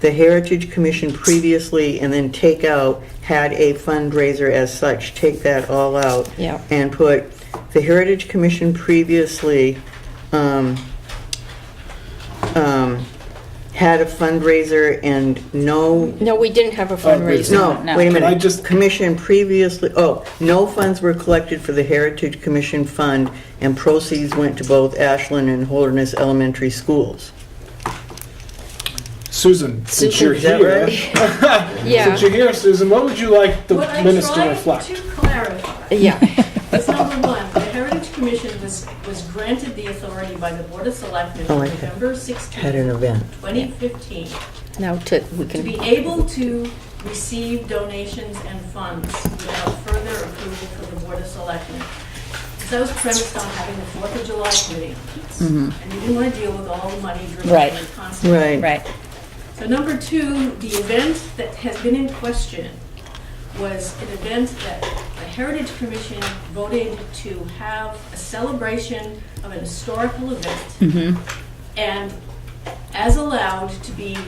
The Heritage Commission previously, and then take out, had a fundraiser as such, take that all out. Yeah. And put, the Heritage Commission previously, um, um, had a fundraiser and no No, we didn't have a Oh, we- fundraiser. no, No. wait a Can I minute. just- Commission previously, oh, no funds were collected for the Heritage Commission Fund, and proceeds went to both Ashland and Holderness Elementary Schools. Susan, since Susan, you're is that here, Yeah, since you're here, Susan, what would you like the What I minutes to tried reflect? to clarify yeah, is number one, the Heritage Commission was, was granted the authority by the Board of Selectmen Oh, on I had- November Had an 16, event. 2015, now to, we to be can, able to receive donations and funds without further approval from the Board of Selectmen. Because that was premised on having the Fourth of July committee. And you didn't want to deal with all the money driven Right. by the constant. Mm-hmm. Right. Right. So number two, the event that has been in question was an event that the Heritage Commission voted to have a celebration of an historical event. And as allowed to be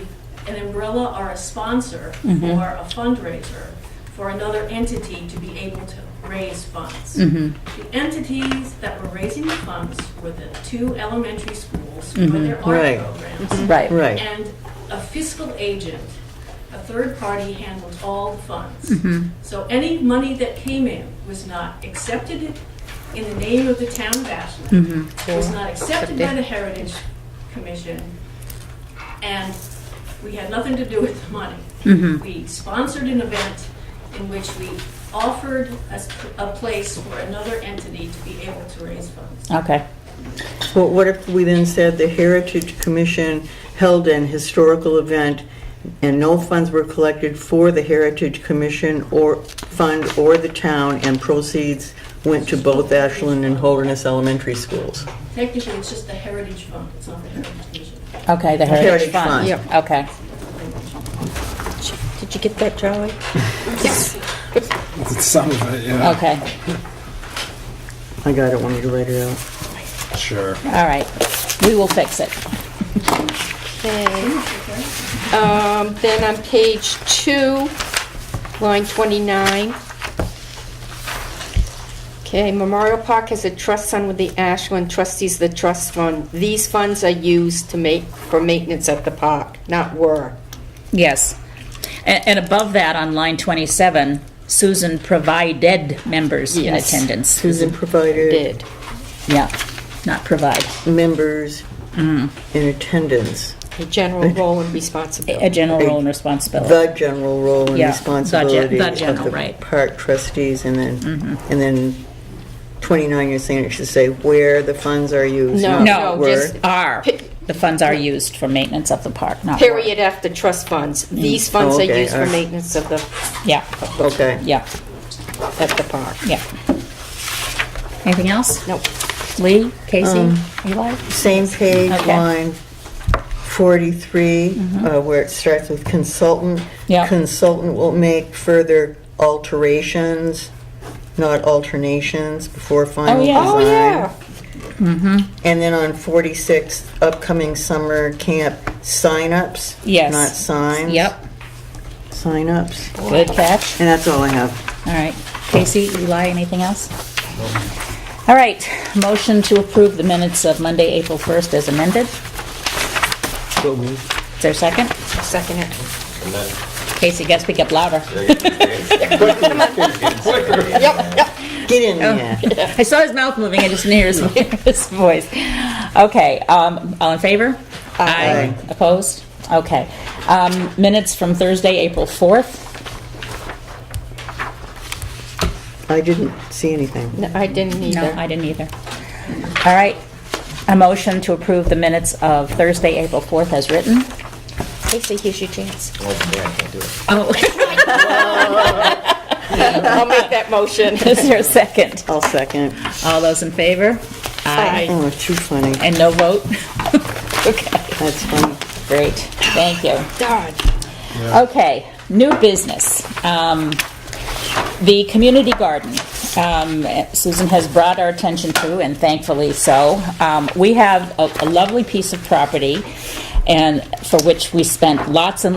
an umbrella or a sponsor or a fundraiser for another entity to be able to raise funds. The entities that were raising the funds were the two elementary schools for their Right. art Mm-hmm. programs. Right. Right. And a fiscal agent, a third party handled all the funds. So any money that came in was not accepted in the name of the town of Ashland, was not accepted by the Heritage Commission, and we had nothing to do with the money. We sponsored an event in which we offered a s- a place for another entity to be able to raise funds. Okay. Well, what if we then said the Heritage Commission held an historical event and no funds were collected for the Heritage Commission or fund or the town, and proceeds went to both Ashland and Holderness Elementary Schools? Technically, it's just the Heritage Fund, it's not the Heritage Commission. Okay, the Heritage Heritage Fund. Fund. Yep. Okay. did you get that, Charlie? Some of it, yeah. Okay. I got it, want me to write it out? Sure. All right. We will fix it. Okay. Um, then on page two, line 29. Okay, Memorial Park has a trust fund with the Ashland trustees, of the trust fund. These funds are used to make, for maintenance at the park, not were. Yes. And, and above that, on line 27, Susan provided members in Yes. attendance. Susan provided Did. Yeah, not provide. members in attendance, The general role and A a responsibility. general role and responsibility. the general role and Yeah, the gen- responsibility the of general, the right. Mm-hmm. park trustees, and then, and then 29, you're saying it should say where the funds are used, No, not No, no, where. just are. Pe- The funds are used for maintenance of the park, not. were. Period after trust funds. These funds are Okay, used for alright. maintenance of the, Yeah, Okay. yeah, at the park. yeah. Anything else? Nope. Lee, Casey, Eli? Same page, Okay. Mm-hmm. line 43, uh, where it starts with consultant. Yeah. Consultant will make further alterations, not alternations, before final yeah. Mm-hmm. design. Oh, yeah. And then on 46, upcoming summer camp signups. Yes. Not signs. Yep, Signups. good catch. And that's all I have. All right. Casey, Eli, anything else? All right, motion to approve the minutes of Monday, April 1st as amended. Is there a second? Second it. And then Casey, guess we get louder. they get the Get in Oh. there. I saw his mouth moving, I just didn't hear his, his voice. Okay, um, all in favor? Aye. Opposed? Okay. Um, minutes from Thursday, April 4th. I didn't see anything. No, I didn't No, either. I didn't either. All right, a motion to approve the minutes of Thursday, April 4th as written. Casey, here's your chance. I can't do it. Oh. I'll make that motion. Is there a second? I'll second. All those in favor? Aye. Oh, too funny. And no vote? Okay, That's funny. great, thank you. Darn. Okay, new business. Um, The community garden, um, Susan has brought our attention to, and thankfully so. Um, We have a a lovely piece of property, and for which we spent lots and